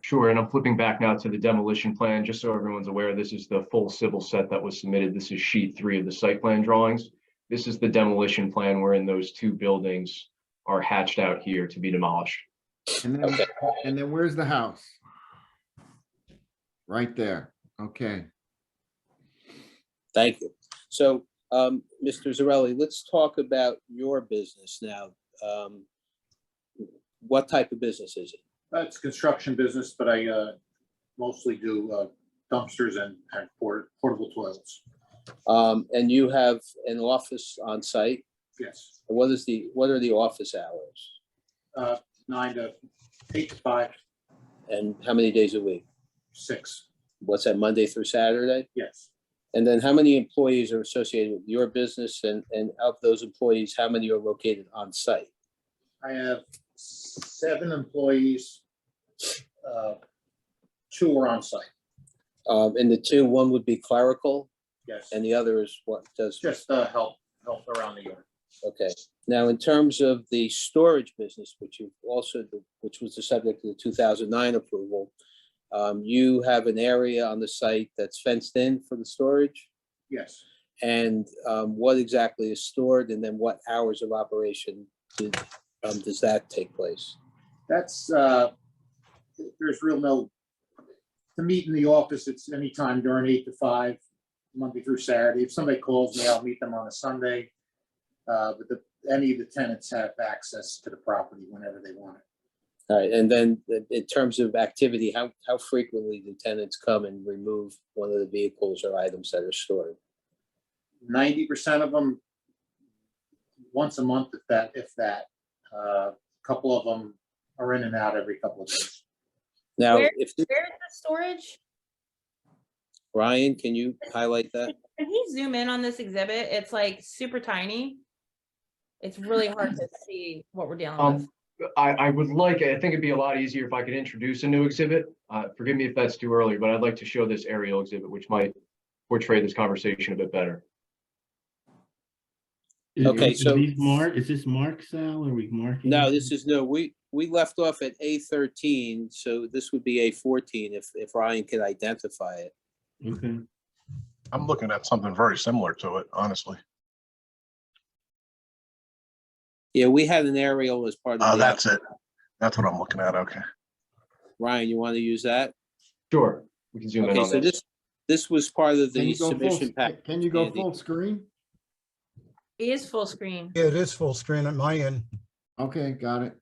Sure, and I'm flipping back now to the demolition plan, just so everyone's aware, this is the full civil set that was submitted. This is sheet three of the site plan drawings. This is the demolition plan wherein those two buildings are hatched out here to be demolished. And then, Okay. and then where's the house? Right there. Okay. Thank you. So, um, Mr. Zarelli, let's talk about your business now. Um, What type of business is it? That's construction business, but I uh, mostly do uh, dumpsters and and port- portable toilets. Um, And you have an office on site. Yes, What is the, what are the office hours? Uh, nine to eight to five, And how many days a week? six. What's that, Monday through Saturday? Yes, And then how many employees are associated with your business? And, and of those employees, how many are located on site? I have seven employees. uh, Two are on site. Um, And the two, one would be clerical Yes, and the other is what does just uh, help, help around the yard. Okay, now in terms of the storage business, which you also, which was the subject of the two thousand nine approval, um, you have an area on the site that's fenced in for the storage? Yes, And, um, what exactly is stored and then what hours of operation did, um, does that take place? that's, uh, there's real no, to meet in the office, it's anytime during eight to five, Monday through Saturday. If somebody calls me, I'll meet them on a Sunday. Uh, But the, any of the tenants have access to the property whenever they want it. All right, and then in- in terms of activity, how, how frequently do tenants come and remove one of the vehicles or items that are stored? Ninety percent of them, once a month, if that, if that, a couple of them are in and out every couple of days. Now, Where- if, Where's the storage? Ryan, can you highlight that? Can he zoom in on this exhibit? It's like super tiny. It's really hard to see what we're dealing with. Um, I, I would like, I think it'd be a lot easier if I could introduce a new exhibit. Uh, forgive me if that's too early, but I'd like to show this aerial exhibit, which might portray this conversation a bit better. Is- Okay, is so- these Mark, is this Mark, Sal? Are we marking? No, this is, no, we, we left off at A thirteen, so this would be A fourteen if, if Ryan could identify it. Okay. I'm looking at something very similar to it, honestly. Yeah, we had an aerial as part Uh, of that's the, it. That's what I'm looking at. Okay. Ryan, you want to use that? Sure, we can zoom in Okay, on so this. this, this was part of Can the you go full submission sc- pack. Can you go Andy. full screen? It is full screen. Yeah, It is full screen at my end. Okay, got it.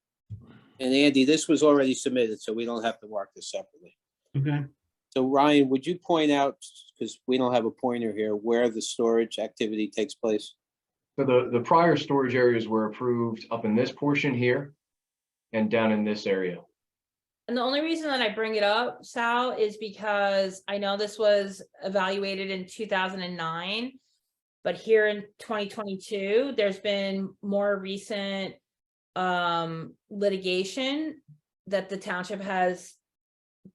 And Andy, this was already submitted, so we don't have to mark this separately. Okay. So Ryan, would you point out, because we don't have a pointer here, where the storage activity takes place? So the, the prior storage areas were approved up in this portion here and down in this area. And the only reason that I bring it up, Sal, is because I know this was evaluated in two thousand and nine. But here in twenty twenty-two, there's been more recent um litigation that the township has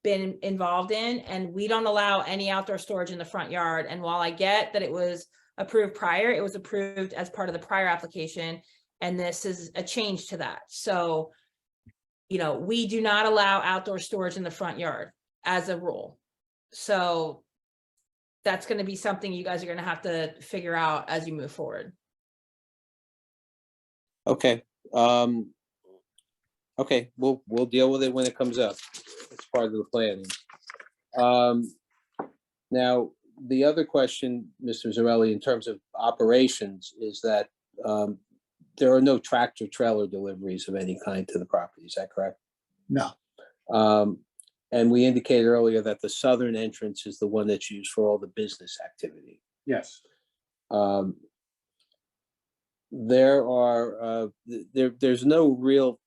been involved in, and we don't allow any outdoor storage in the front yard. And while I get that it was approved prior, it was approved as part of the prior application, and this is a change to that. So you know, we do not allow outdoor storage in the front yard as a rule. So that's gonna be something you guys are gonna have to figure out as you move forward. Okay, um, okay, we'll, we'll deal with it when it comes up. It's part of the planning. Um, now, the other question, Mr. Zarelli, in terms of operations, is that, um, there are no tractor trailer deliveries of any kind to the property, is that correct? No. Um, and we indicated earlier that the southern entrance is the one that's used for all the business activity. Yes. Um There are, uh th- there, there's no real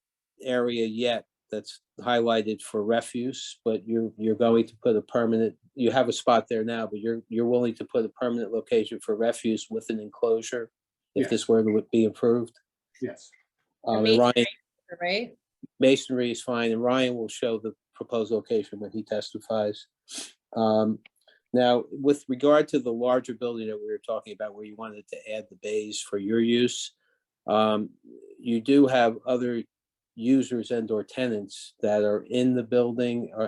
area yet that's highlighted for refuse, but you're, you're going to put a permanent, you have a spot there now, but you're, you're willing to put a permanent location for refuse with an enclosure if Yeah. this were to be approved. Yes, Um, and Amazing. Ryan, Right? masonry is fine, and Ryan will show the proposed location when he testifies. Um, Now, with regard to the larger building that we were talking about, where you wanted to add the bays for your use, um, you do have other users and/or tenants that are in the building or